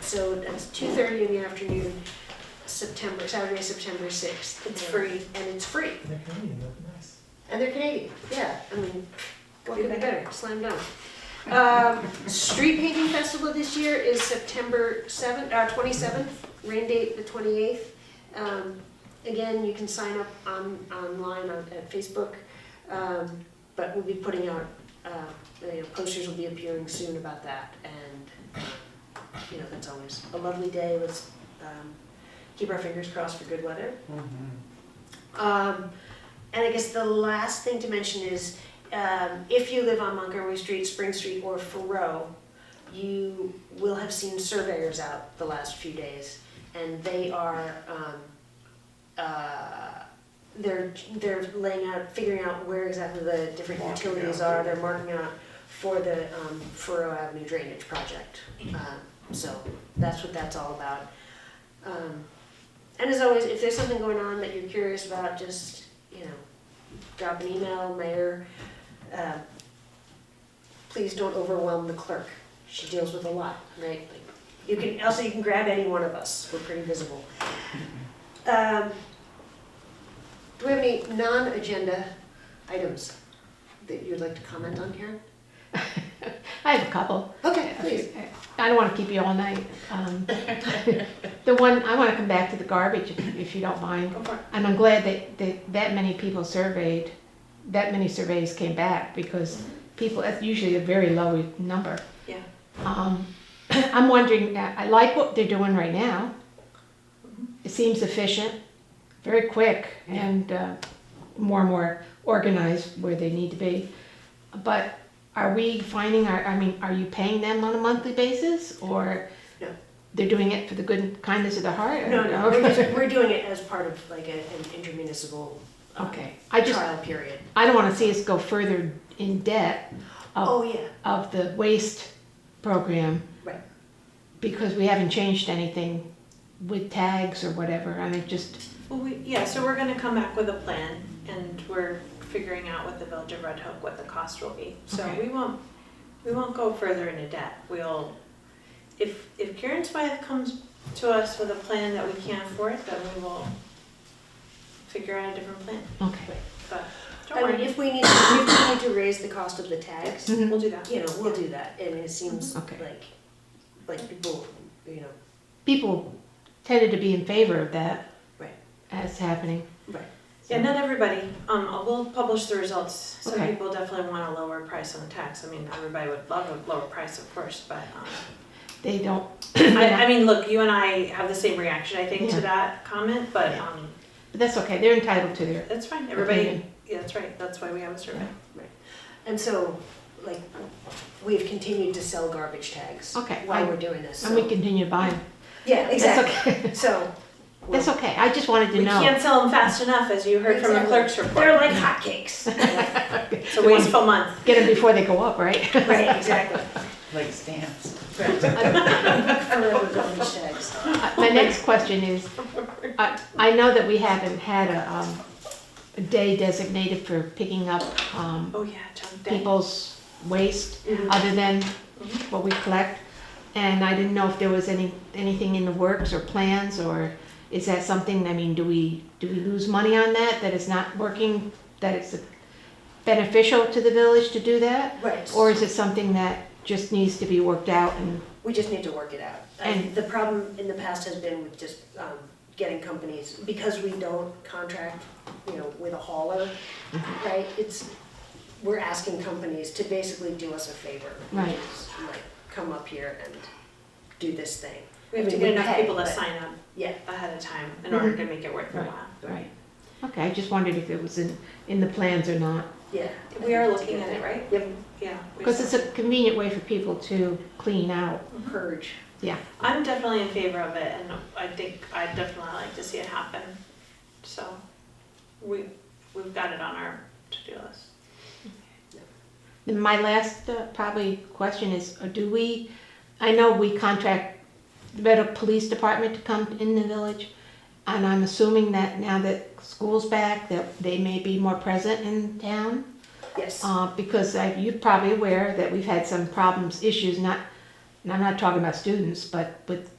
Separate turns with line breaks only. so it's two thirty in the afternoon, September, Saturday, September sixth. It's
Yeah.
free and it's free.
They're Canadian, they're nice.
And they're Canadian, yeah, I mean, what could be better, slam dunk. Um, street painting festival this year is September seventh, uh, twenty-seventh, rain date the twenty-eighth. Um, again, you can sign up on, online on, at Facebook, um, but we'll be putting out, uh, you know, posters will be appearing soon about that, and, um, you know, that's always a lovely day, let's, um, keep our fingers crossed for good weather. Um, and I guess the last thing to mention is, um, if you live on Montgomery Street, Spring Street, or Thoreau, you will have seen surveyors out the last few days, and they are, um, uh, they're, they're laying out, figuring out where exactly the different
Marking
utilities
out.
are, they're marking out for the, um, Thoreau Avenue drainage project. Um, so that's what that's all about. Um, and as always, if there's something going on that you're curious about, just, you know, drop an email, mayor. Uh, Please don't overwhelm the clerk. She deals with a lot, right? Like, You can, also you can grab any one of us. We're pretty visible. Um, Do we have any non-agenda items that you'd like to comment on, Karen?
I have a couple.
Okay, please.
I don't want to keep you all night. Um, The one, I want to come back to the garbage if- if you don't mind.
Go for it.
And I'm glad that, that that many people surveyed, that many surveys came back because people, that's usually a very low number.
Mm-hmm. Yeah.
Um, I'm wondering, uh, I I like what they're doing right now. It seems efficient, very quick and uh, more and more organized where they need to be. But are we finding, our? I mean, are you paying them on a monthly basis or?
No.
They're doing it for the good kindness of the heart?
No, no, we're
Okay.
just, we're doing it as part of like a- an intermunicipal um,
Okay, I just,
trial period.
I don't wanna see us go further in debt
Oh,
of,
yeah,
of the waste program.
Right.
Because we haven't changed anything with tags or whatever, I mean, just,
Well, we, yeah, so we're gonna come back with a plan and we're figuring out with the Village of Red Hook what the cost will be. So
Okay.
we won't, we won't go further into debt. We'll, if, if Karen's wife comes to us with a plan that we can't afford, then we will figure out a different plan.
okay.
But don't
I mean,
worry,
if we need, if we need to raise the cost of the tags, you
Mhm.
Mm-hmm. we'll do that.
know, we'll do that, and it seems
Mhm. Okay.
like, like people, you know,
People tended to be in favor of that.
Right.
As happening.
Right.
Yeah, not everybody, um, we'll publish the results. Some
Okay.
people definitely want a lower price on tax. I mean, everybody would love a lower price, of course, but, um,
They don't,
I, I mean, look, you and I have the same reaction, I think,
Yeah.
to that comment, but um,
but that's okay, they're entitled to their
that's fine. Everybody,
opinion.
yeah, that's right. That's why we have a survey.
and so, like, we've continued to sell garbage tags
Okay, I-
while we're doing this,
And we
so-
continue buying,
Yeah,
that's
exactly,
okay,
so. we'll-
that's okay, I just wanted to
We
know.
can't sell them fast enough, as you heard from the
Exactly.
clerk's report.
They're like hotcakes.
It's a wasteful month.
Get them before they go up, right?
Right, exactly.
Like stamps.
Forever garbage tags.
Uh, My next question is, I, I know that we haven't had a, um, a day designated for picking up, um,
Oh, yeah, junk day.
people's waste
Mhm.
other than what we collect. And I didn't know if there was any, anything in the works or plans or is that something, I mean, do we, do we lose money on that, that it's not working, that it's beneficial to the village to do that?
Right.
Or is it something that just needs to be worked out and,
We just need to work it out. I-
And-
the problem in the past has been with just um, getting companies, because we don't contract, you know, with a hauler,
Mm-hmm.
right? It's, we're asking companies to basically do us a favor. which
Right.
is, Like, come up here and do this thing.
We have
I
to
mean,
get
we
enough
pay,
people to
but-
sign up
Yeah,
ahead of time in order to make it worth their
Right.
while.
right? Okay, I just wondered if it was in, in the plans or not.
yeah.
We are looking at it, right?
Yep,
Yeah. we
Because
still-
it's a convenient way for people to clean out.
purge.
I'm definitely in favor of it, and I think I'd definitely like to see it happen. So we, we've got it on our to-do list.
And my last uh, probably question is, uh, do we, I know we contract the better police department to come in the village, and I'm assuming that now that school's back, that they may be more present in town?
Yes,
Uh, because I, you're probably aware that we've had some problems, issues, not, and I'm not talking about students, but with